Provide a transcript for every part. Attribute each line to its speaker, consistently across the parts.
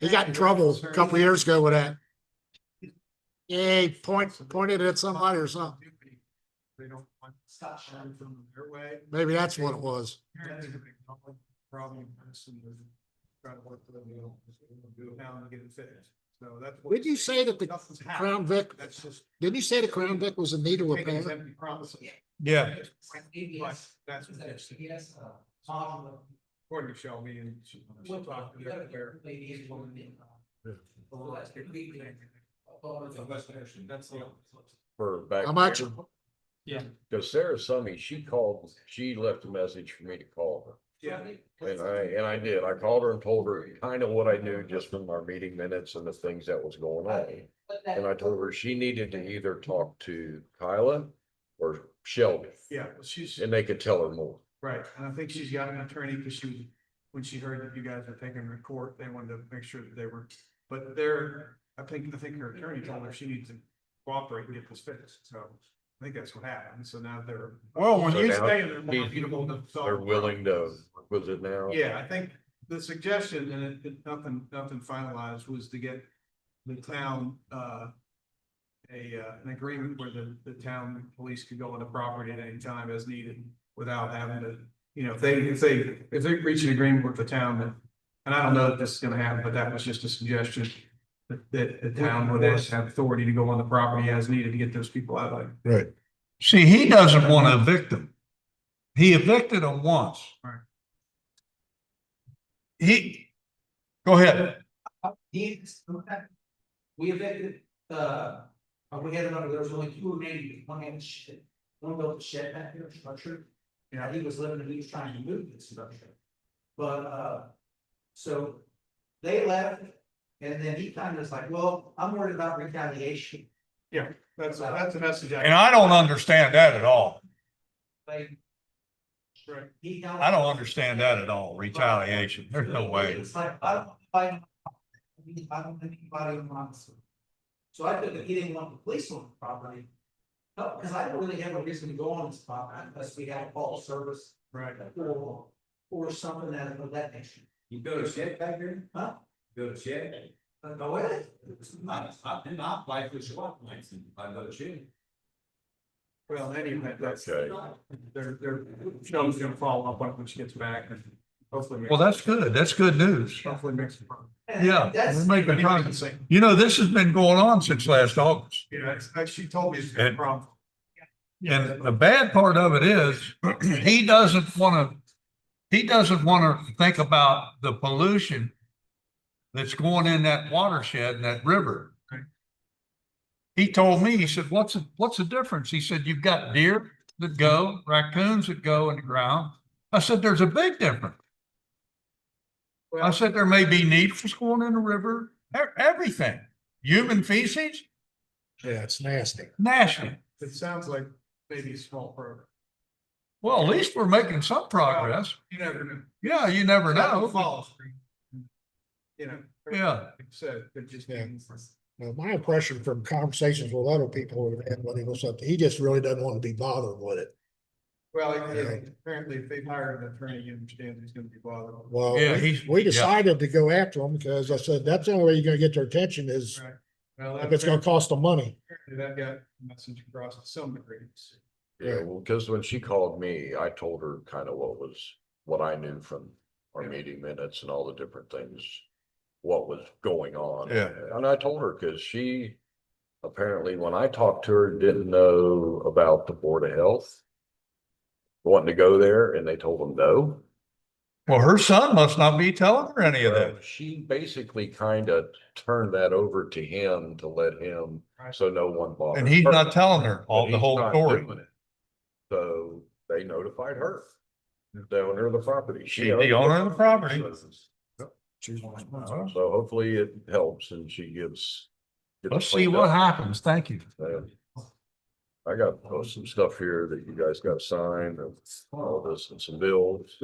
Speaker 1: He got in trouble a couple years ago with that. Yeah, he point, pointed at somebody or something.
Speaker 2: They don't want stop sign from their way.
Speaker 1: Maybe that's what it was.
Speaker 2: Apparently, the big Problem person was trying to work with them, you know, just do it now and get it fixed. So that's. what-
Speaker 1: Did you say that the
Speaker 2: Nothing's happened.
Speaker 1: Crown Vic,
Speaker 2: That's just.
Speaker 1: didn't you say the Crown Vic was in need of
Speaker 2: taking these
Speaker 1: repair?
Speaker 2: empty promises.
Speaker 3: Yeah,
Speaker 2: But That's what they're saying. According to Shelby and she she talked to them where. That's the.
Speaker 4: for back.
Speaker 1: How much?
Speaker 4: there. Cause Sarah Summy, she called, she left a message for me to call
Speaker 2: Yeah.
Speaker 4: her. And I, and I did. I called her and told her kind of what I knew just from our meeting minutes and the things that was going on. And I told her she needed to either talk to Kyla or Shelby
Speaker 2: Yeah, well, she's,
Speaker 4: and they could tell her more.
Speaker 2: right, and I think she's got an attorney because she, was when she heard that you guys were taking her to court, they wanted to make sure that they were. But they're, I think, I think her attorney told her she needs to cooperate and get this fixed, so I think that's what happened, so now they're.
Speaker 3: well, when
Speaker 4: So
Speaker 3: you,
Speaker 4: now-
Speaker 2: They are more amenable to solve
Speaker 4: They're willing to,
Speaker 2: problems.
Speaker 4: was it now?
Speaker 2: Yeah, I think the suggestion, and it, it- nothing, nothing finalized, was to get the town, uh. A, uh, an agreement where the, the town police could go on the property at any time as needed without having to. You know, if they, if they, if they reach an agreement with the town, then- and I don't know if this is gonna happen, but that was just a suggestion. That, that the town would have authority to go on the property as needed to get those people out of there.
Speaker 3: see, he doesn't want to evict him. He evicted him once.
Speaker 2: Right.
Speaker 3: He, go ahead.
Speaker 5: Dean's, okay. We evicted, uh, uh, we had another, there was only two remaining, one had a shed, one built a shed back here, structure. And uh, he was living, and he was trying to move this structure. But, uh, so they left, and then he kind of was like, well, I'm worried about retaliation,
Speaker 2: That's, that's a message.
Speaker 3: And I don't understand that at all.
Speaker 5: like.
Speaker 2: Right.
Speaker 5: He.
Speaker 3: I don't understand that at all, retaliation. There's no way.
Speaker 5: It's like, I don't, I don't, I don't think anybody in Monmouth. So I took it, he didn't want the police on the property. No, because I don't really have a reason to go on this property unless we have a call service
Speaker 2: Right.
Speaker 5: or, or something that, of that nature.
Speaker 6: You build a shed back there,
Speaker 5: Huh? Uh,
Speaker 6: build a shed.
Speaker 5: But no way.
Speaker 6: It's not, it's not, and not like the swap lines and I built a shed.
Speaker 2: Well, anyway, that's.
Speaker 4: Okay.
Speaker 2: They're, they're, Shelby's gonna follow up on it when she gets back and hopefully. make-
Speaker 3: Well, that's good. That's good news.
Speaker 2: Hopefully makes. it work.
Speaker 3: Yeah,
Speaker 5: That's,
Speaker 3: we're making
Speaker 2: Anybody can
Speaker 3: progress.
Speaker 2: say,
Speaker 3: You know, this has been going on since last August.
Speaker 2: You know, it's- like she told me it's a
Speaker 3: And-
Speaker 2: problem.
Speaker 3: And the bad part of it is, he doesn't wanna, he doesn't wanna think about the pollution that's going in that watershed and that river.
Speaker 2: Right.
Speaker 3: He told me, he said, what's, the- what's the difference? He said, you've got deer that go, raccoons that go in the ground. I said, there's a big difference. I
Speaker 2: Well-
Speaker 3: said, there may be need for going in the river, e- everything, human feces,
Speaker 1: Yeah, it's nasty.
Speaker 3: nasty.
Speaker 2: It sounds like maybe a small program.
Speaker 3: Well, at least we're making some progress.
Speaker 2: You never know.
Speaker 3: Yeah, you never
Speaker 2: Nothing
Speaker 3: know.
Speaker 2: follows. You know.
Speaker 3: Yeah.
Speaker 2: So it just.
Speaker 1: Yeah.
Speaker 2: means-
Speaker 1: Now, my impression from conversations with other people who have had money was something, he just really doesn't want to be bothered with it.
Speaker 2: Well, it- it- apparently if they hire an attorney, you understand he's gonna be bothered.
Speaker 1: Well,
Speaker 3: Yeah,
Speaker 1: Oh, we-
Speaker 3: he's-
Speaker 1: we
Speaker 3: yeah.
Speaker 1: decided to go after him because I said, that's the only way you're gonna get their attention is
Speaker 2: Well,
Speaker 1: if it's gonna cost them money.
Speaker 2: apparently That got a message across to some degree.
Speaker 4: Yeah, well, cause when she called me, I told her kind of what was, what I knew from our
Speaker 2: Yeah.
Speaker 4: meeting minutes and all the different things. What was going on.
Speaker 3: Yeah.
Speaker 4: And I told her, cause she apparently, when I talked to her, didn't know about the Board of Health. Wanting to go there and they told them no.
Speaker 3: Well, her son must not be telling her any of
Speaker 4: Well,
Speaker 3: that.
Speaker 4: She basically kind of turned that over to him to let him,
Speaker 2: Right.
Speaker 4: so no one bothered.
Speaker 3: And he's
Speaker 4: her.
Speaker 3: not telling her
Speaker 4: But
Speaker 3: all the
Speaker 4: he's
Speaker 3: whole
Speaker 4: not
Speaker 3: story.
Speaker 4: doing it. So they notified her. The owner of the property.
Speaker 3: She's the owner of the property.
Speaker 1: She's-
Speaker 3: Well,
Speaker 4: So hopefully it helps and she gives. gets
Speaker 3: Let's see
Speaker 4: cleaned
Speaker 3: what
Speaker 4: up.
Speaker 3: happens. Thank you.
Speaker 4: Uh, I got uh, some stuff here that you guys got signed and all this and some bills.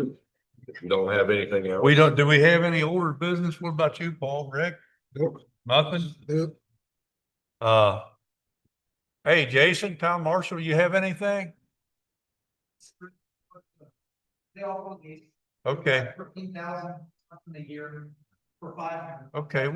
Speaker 4: If you don't have anything else.
Speaker 3: We don't, do we have any older business? What about you, Paul, Rick?
Speaker 1: Nope.
Speaker 3: Nothing?
Speaker 1: Nope.
Speaker 3: Uh, hey, Jason, Tom Marshall, you have anything?
Speaker 5: they all want these.
Speaker 3: Okay,
Speaker 5: Fifteen thousand a year.
Speaker 7: for five hundred.
Speaker 5: Okay,